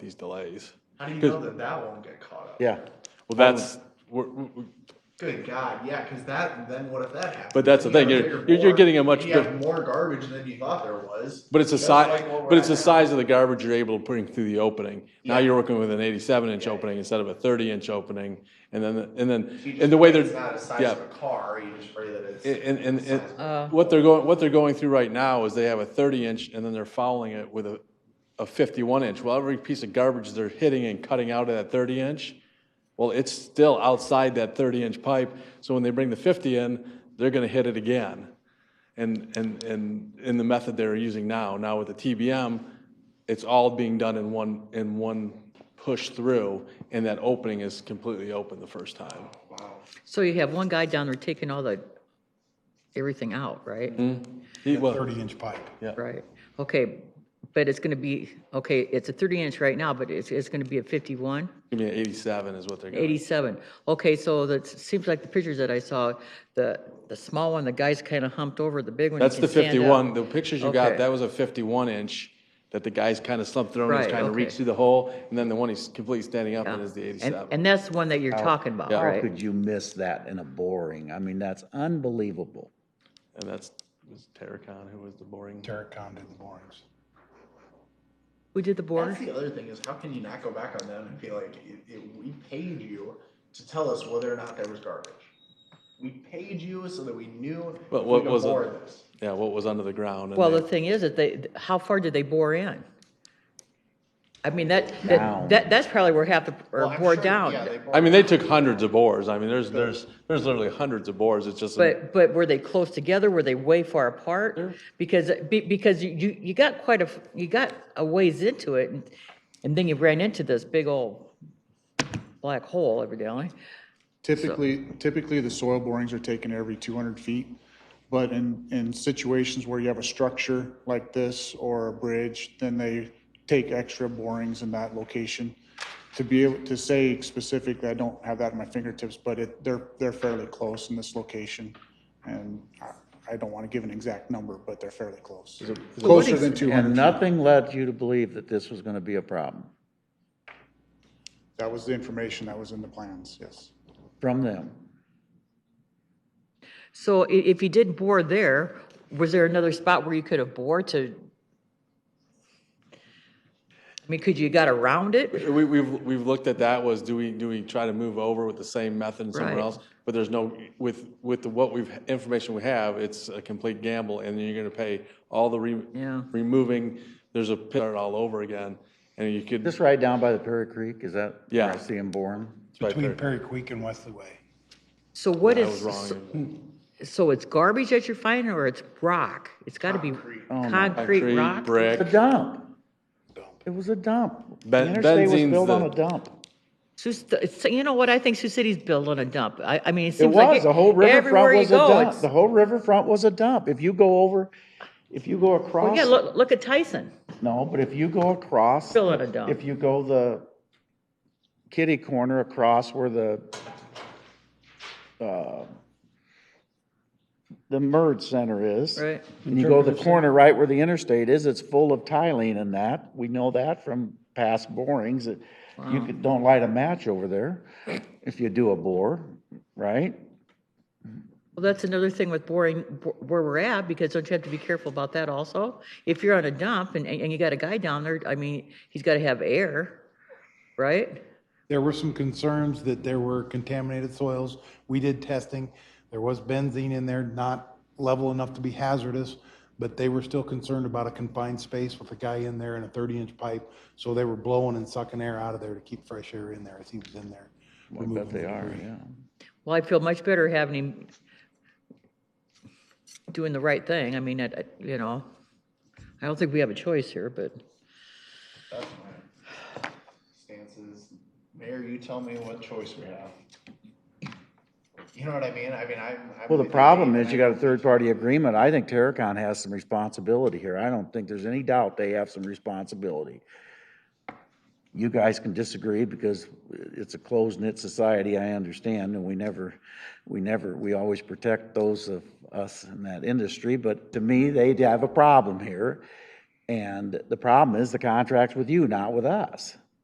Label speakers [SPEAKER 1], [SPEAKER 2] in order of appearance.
[SPEAKER 1] these delays.
[SPEAKER 2] How do you know that that won't get caught up?
[SPEAKER 3] Yeah,
[SPEAKER 1] Well, that's, we're, we-
[SPEAKER 2] Good God, yeah, because that, then what if that happens?
[SPEAKER 1] But that's the
[SPEAKER 2] You have
[SPEAKER 1] thing,
[SPEAKER 2] a
[SPEAKER 1] you're-
[SPEAKER 2] bigger
[SPEAKER 1] you're- you're
[SPEAKER 2] board,
[SPEAKER 1] getting a much
[SPEAKER 2] and You have
[SPEAKER 1] diff-
[SPEAKER 2] more garbage than you thought there was.
[SPEAKER 1] but it's a
[SPEAKER 2] Just
[SPEAKER 1] size,
[SPEAKER 2] like what we're
[SPEAKER 1] but it's the
[SPEAKER 2] at now.
[SPEAKER 1] size of the garbage you're able to bring through the opening. Now
[SPEAKER 2] Yeah.
[SPEAKER 1] you're working with an eighty-seven inch
[SPEAKER 2] Yeah.
[SPEAKER 1] opening instead of a thirty inch opening, and then, and
[SPEAKER 2] So you
[SPEAKER 1] then,
[SPEAKER 2] just
[SPEAKER 1] and the way
[SPEAKER 2] pray
[SPEAKER 1] they're,
[SPEAKER 2] It's not a size
[SPEAKER 1] yeah.
[SPEAKER 2] of a car, you just pray that it's.
[SPEAKER 1] And, and,
[SPEAKER 2] the size of a-
[SPEAKER 1] and what they're going, what they're going through right now is they have a thirty inch and then they're fouling it with a, a fifty-one inch. Well, every piece of garbage they're hitting and cutting out of that thirty inch, well, it's still outside that thirty inch pipe. So when they bring the fifty in, they're gonna hit it again. And, and, and in the method they're using now, now with the TBM, it's all being done in one, in one push through and that opening is completely open the first time.
[SPEAKER 4] So you have one guy down there taking all the, everything out, right?
[SPEAKER 1] Mm-hmm. He- well,
[SPEAKER 3] thirty-inch pipe.
[SPEAKER 4] Right, okay, but it's gonna be, okay, it's a thirty inch right now, but it's, it's gonna be a fifty-one?
[SPEAKER 1] Give me an 87 is what they're going
[SPEAKER 4] 87. Okay, so that seems like the pictures that I saw, the, the small one, the guy's kind of humped over, the big one. he
[SPEAKER 1] That's
[SPEAKER 4] can
[SPEAKER 1] the
[SPEAKER 4] stand up.
[SPEAKER 1] 51, the pictures you got,
[SPEAKER 4] Okay.
[SPEAKER 1] that was a 51 inch that the guy's kind of slumped through and was
[SPEAKER 4] Right,
[SPEAKER 1] trying to reach
[SPEAKER 4] okay.
[SPEAKER 1] through the hole. And then the one he's completely standing up in is the
[SPEAKER 4] And,
[SPEAKER 1] 87.
[SPEAKER 4] and that's the one that you're talking about,
[SPEAKER 1] yeah.
[SPEAKER 3] How
[SPEAKER 4] right?
[SPEAKER 3] could you miss that in a boring? I mean, that's unbelievable.
[SPEAKER 1] And that's, was Terracon who was the boring.
[SPEAKER 5] Derek Kahn did the borings.
[SPEAKER 4] Who did the board?
[SPEAKER 2] That's the other thing is how can you not go back on them and be like, it, it, we paid you to tell us whether or not there was garbage. We paid you so that we knew if
[SPEAKER 1] But
[SPEAKER 2] we
[SPEAKER 1] what
[SPEAKER 2] could
[SPEAKER 1] was it?
[SPEAKER 2] afford this.
[SPEAKER 1] Yeah, what was under the ground. and
[SPEAKER 4] Well,
[SPEAKER 1] they-
[SPEAKER 4] the thing is that they, how far did they bore in? I mean, that,
[SPEAKER 3] Down.
[SPEAKER 4] that, that- that's probably where half the,
[SPEAKER 2] Well,
[SPEAKER 4] or
[SPEAKER 2] I'm
[SPEAKER 4] bore
[SPEAKER 2] sure- yeah, they
[SPEAKER 4] down.
[SPEAKER 2] bored
[SPEAKER 1] I mean, they took hundreds of bores. I mean, there's, there's, there's literally hundreds of bores. It's just, an-
[SPEAKER 4] But, but were they close together? Were they way far apart? Because, be- because you- you, you got quite a, f- you got a ways into it and, and then you ran into this big old black hole evidently.
[SPEAKER 5] Typically, typically the soil borings are taken every 200 feet. But in, in situations where you have a structure like this or a bridge, then they take extra borings in that location. To be able to say specifically, I don't have that at my fingertips, but it, they're, they're fairly close in this location. And I, I don't want to give an exact number, but they're fairly close. Closer than 200.
[SPEAKER 3] And nothing led you to believe that this was going to be a problem
[SPEAKER 5] That was the information that was in the plans, yes.
[SPEAKER 3] from them.
[SPEAKER 4] So i- if you did bore there, was there another spot where you could have bored to? I mean, could you got around it?
[SPEAKER 1] we, we've, we've looked at that was do we, do we try to move over with the same method and someone
[SPEAKER 4] Right.
[SPEAKER 1] else? But there's no, with, with the, what we've, information we have, it's a complete gamble and you're going to pay all the re-
[SPEAKER 4] Yeah.
[SPEAKER 1] removing, there's a pit all over again. And you could,
[SPEAKER 3] This right down by the Perry Creek, is that where
[SPEAKER 1] Yeah.
[SPEAKER 3] I see them boring?
[SPEAKER 1] Right
[SPEAKER 6] Between
[SPEAKER 1] there.
[SPEAKER 6] Perry Creek and Wesley Way.
[SPEAKER 4] So what
[SPEAKER 1] I was
[SPEAKER 4] is,
[SPEAKER 1] wrong.
[SPEAKER 4] so-
[SPEAKER 1] and-
[SPEAKER 4] so it's garbage that you're finding or it's rock? It's gotta be concrete
[SPEAKER 1] Concrete,
[SPEAKER 4] rock?
[SPEAKER 3] A
[SPEAKER 1] brick.
[SPEAKER 3] dump. It was a dump. The
[SPEAKER 1] Ben-
[SPEAKER 3] interstate was
[SPEAKER 1] benzene's
[SPEAKER 3] built on
[SPEAKER 1] the-
[SPEAKER 3] a dump.
[SPEAKER 4] Sioux St- it's- you know what, I think Sioux City's built on a dump. I, I mean, it
[SPEAKER 3] It
[SPEAKER 4] seems like.
[SPEAKER 3] was, the whole
[SPEAKER 4] everywhere
[SPEAKER 3] riverfront
[SPEAKER 4] you
[SPEAKER 3] was a
[SPEAKER 4] go,
[SPEAKER 3] dump.
[SPEAKER 4] it's-
[SPEAKER 3] The whole riverfront was a dump. If you go over, if you go
[SPEAKER 4] Well,
[SPEAKER 3] across.
[SPEAKER 4] yeah, look, look at Tyson,
[SPEAKER 3] No, but if you go across.
[SPEAKER 4] Fill it a dump.
[SPEAKER 3] If you go the kitty corner across where the, uh, the merge center is.
[SPEAKER 4] right?
[SPEAKER 3] And you go the corner right where the interstate is, it's full of tiling and that. We know that from past borings. that You could, don't light a match over there if you do a bore, right?
[SPEAKER 4] Well, that's another thing with boring, bo- where we're at, because don't you have to be careful about that also? If you're on a dump and, and you got a guy down there, I mean, he's gotta have air, right?
[SPEAKER 6] There were some concerns that there were contaminated soils. We did testing. There was benzene in there, not level enough to be hazardous, but they were still concerned about a confined space with a guy in there and a 30-inch pipe. So they were blowing and sucking air out of there to keep fresh air in there as he was in there.
[SPEAKER 3] I bet they are, yeah.
[SPEAKER 4] Well, I feel much better having him doing the right thing. I mean, I, I- you know, I don't think we have a choice here, but.
[SPEAKER 2] That's my stance is, Mayor, you tell me what choice we have. You know what I mean? I mean, I'm. I'm
[SPEAKER 3] Well, the
[SPEAKER 2] with you,
[SPEAKER 3] problem
[SPEAKER 2] Dave,
[SPEAKER 3] is you
[SPEAKER 2] and I-
[SPEAKER 3] got a third-party agreement. I think Terracon has some responsibility here. I don't think there's any doubt they have some responsibility. You guys can disagree because it's a closed-knit society, I understand, and we never, we never, we always protect those of us in that industry. But to me, they have a problem here. And the problem is the contract's with you, not with us.